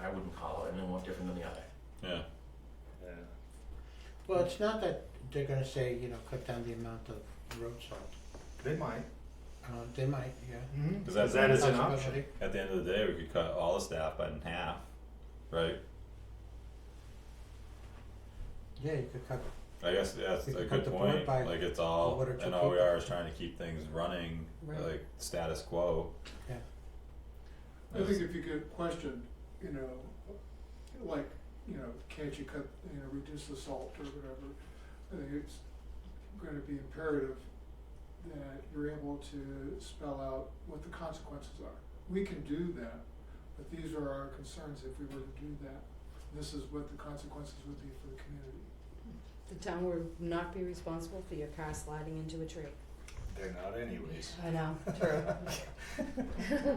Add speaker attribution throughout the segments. Speaker 1: I wouldn't call it, and then one different than the other.
Speaker 2: yeah,
Speaker 3: Yeah.
Speaker 4: Well, it's not that they're gonna say, you know, cut down the amount of road salt.
Speaker 3: They might.
Speaker 4: Uh, they might, yeah.
Speaker 3: Mm-hmm.
Speaker 2: Is that
Speaker 3: Because that is an
Speaker 4: Possibility.
Speaker 3: option.
Speaker 2: at the end of the day, we could cut all the staff by in half, right?
Speaker 4: Yeah, you could cut,
Speaker 2: I guess that's
Speaker 4: We
Speaker 2: a
Speaker 4: could cut
Speaker 2: good
Speaker 4: the
Speaker 2: point,
Speaker 4: board by
Speaker 2: like it's all,
Speaker 4: one or two
Speaker 2: and all we
Speaker 4: people.
Speaker 2: are is trying to keep things running,
Speaker 4: Right.
Speaker 2: like status quo.
Speaker 4: Yeah.
Speaker 5: I think if you get questioned, you know, like, you know, can't you cut, you know, reduce the salt or whatever, I think it's gonna be imperative that you're able to spell out what the consequences are. We can do that, but these are our concerns if we were to do that. This is what the consequences would be for the community.
Speaker 6: The town would not be responsible for your car sliding into a tree.
Speaker 3: They're not anyways.
Speaker 6: I know, true.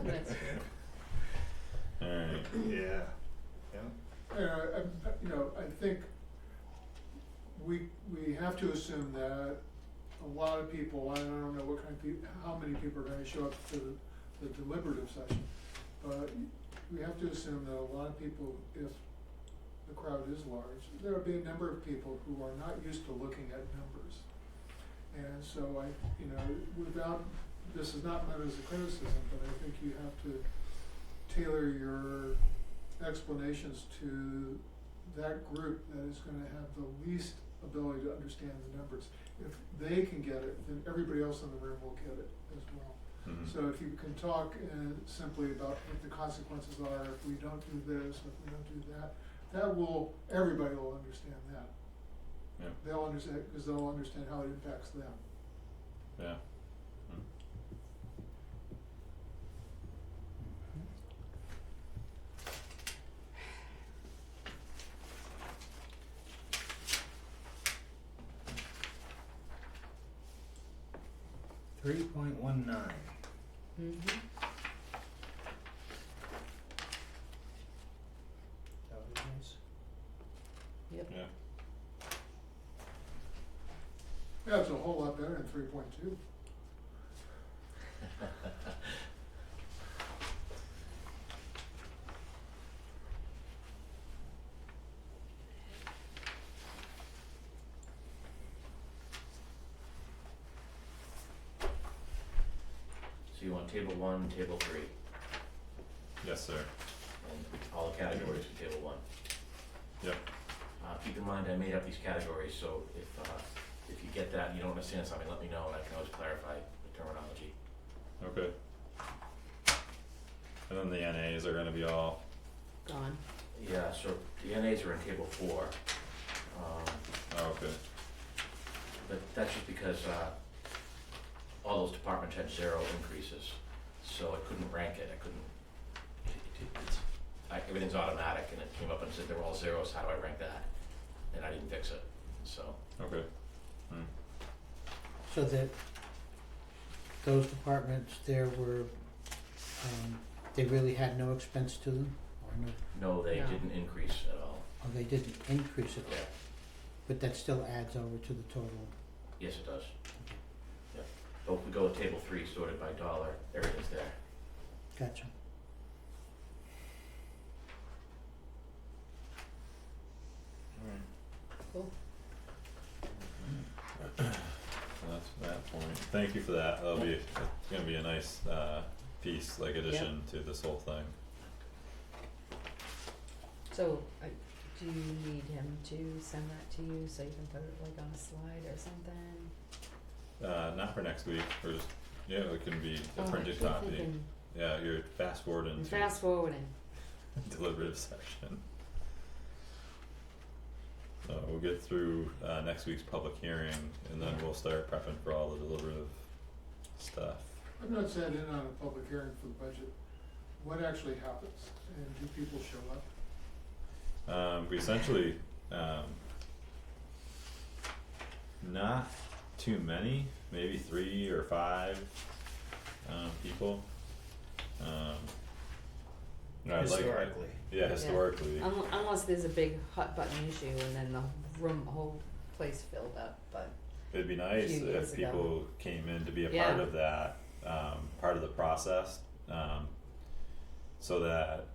Speaker 6: That's true.
Speaker 2: Alright,
Speaker 3: Yeah. Yeah.
Speaker 5: And I, I, you know, I think we, we have to assume that a lot of people, I don't know what kind of people, how many people are gonna show up to the, the deliberative session. But we have to assume that a lot of people, if the crowd is large, there'll be a number of people who are not used to looking at numbers. And so I, you know, without, this is not meant as a criticism, but I think you have to tailor your explanations to that group that is gonna have the least ability to understand the numbers. If they can get it, then everybody else in the room will get it as well.
Speaker 2: mhm.
Speaker 5: So if you can talk uh, simply about what the consequences are if we don't do this, if we don't do that, that will, everybody will understand that.
Speaker 2: Yeah.
Speaker 5: They'll understand, because they'll understand how it impacts them.
Speaker 2: yeah. Mm-hmm.
Speaker 3: Three point one nine.
Speaker 6: Mhm.
Speaker 4: that would be nice.
Speaker 6: Yep.
Speaker 2: Yeah.
Speaker 5: Yeah, it's a whole lot better than three point two.
Speaker 1: So you want table one, table three,
Speaker 2: Yes, sir,
Speaker 1: and all the categories in table one.
Speaker 2: yep,
Speaker 1: Uh, keep in mind, I made up these categories, so if, uh, if you get that and you don't understand something, let me know, and I can always clarify the terminology.
Speaker 2: okay. And then the NAs are gonna be all,
Speaker 6: Gone.
Speaker 1: Yeah, so the NAs are in table four. Um,
Speaker 2: oh, okay,
Speaker 1: But that's just because uh, all those departments had zero increases, so I couldn't rank it, I couldn't. it- it- it's- I- Everything's automatic, and it came up and said they're all zeros, how do I rank that? And I didn't fix it, so,
Speaker 2: okay,
Speaker 4: So that those departments there were, um, they really had no expense to them, or no,
Speaker 1: no, they
Speaker 6: Yeah.
Speaker 1: didn't increase at all.
Speaker 4: or they didn't increase it,
Speaker 1: Yeah,
Speaker 4: but that still adds over to the total.
Speaker 1: yes, it does. Yeah, so if we go with table three, sorted by dollar, everything's there.
Speaker 4: Gotcha.
Speaker 3: Alright.
Speaker 6: Cool.
Speaker 2: so that's that point, thank you for that, that'll be, it's gonna be a nice, uh, piece, like addition to this whole thing.
Speaker 6: So, I, do you need him to send that to you so you can put it like on a slide or something?
Speaker 2: Uh, not for next week, or just, yeah, it can be a
Speaker 6: Oh, I
Speaker 2: printed
Speaker 6: keep
Speaker 2: copy,
Speaker 6: thinking-
Speaker 2: yeah, you're fast forwarding
Speaker 6: I'm
Speaker 2: to
Speaker 6: fast forwarding.
Speaker 2: deliberative session. So we'll get through uh next week's public hearing and then we'll start prepping for all the deliberative stuff.
Speaker 5: I'm not sat in on a public hearing for the budget. What actually happens, and do people show up?
Speaker 2: Um we essentially um not too many, maybe three or five um people. Um you know, I'd like-
Speaker 3: Historically.
Speaker 2: Yeah, historically.
Speaker 6: Un- unless there's a big hot button issue and then the room, whole place filled up, but
Speaker 2: It'd be nice
Speaker 6: few years
Speaker 2: if
Speaker 6: ago.
Speaker 2: people came in to be a part
Speaker 6: Yeah.
Speaker 2: of that, um, part of the process, um, so that